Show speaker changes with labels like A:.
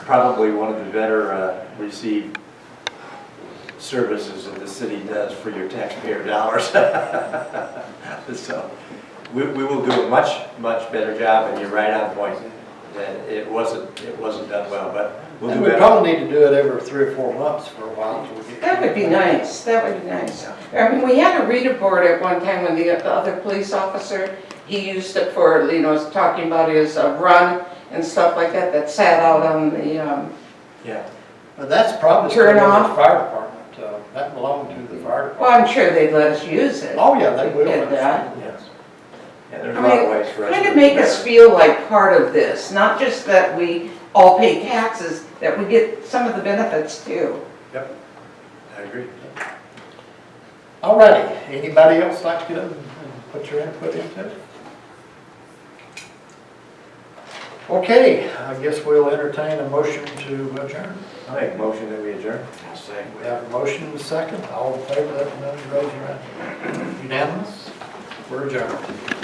A: probably one of the better uh, received services that the city does for your taxpayer dollars. So, we, we will do a much, much better job, and you're right on point, that it wasn't, it wasn't done well, but we'll
B: And
A: do
B: we
A: better.
B: probably need to do it every three or four months for a while. till we get-
C: That would be nice, that would be nice. I mean, we had a reader board at one time when the other police officer, he used it for, you know, talking about his uh, run and stuff like that, that sat out on the, um,
A: Yeah,
B: But that's probably still
C: Turn
B: in the
C: off.
B: fire department, uh, that belonged to the fire
C: well,
B: department.
C: I'm sure they'd let us use it.
B: Oh, yeah, they will.
C: Did that.
B: Yes.
A: yeah, there's
C: I
A: a lot of
C: mean,
A: ways for us to.
C: Kind of
A: do
C: make us
A: better.
C: feel like part of this, not just that we all pay taxes, that we get some of the benefits too.
A: I agree.
B: All righty, anybody else like to get up and put your input into it? Okay, I guess we'll entertain a motion to adjourn.
A: I'll make a motion that we adjourn.
B: We have a motion and a second, all in favor, let me know, raise your hand. Unanimous, we're adjourned.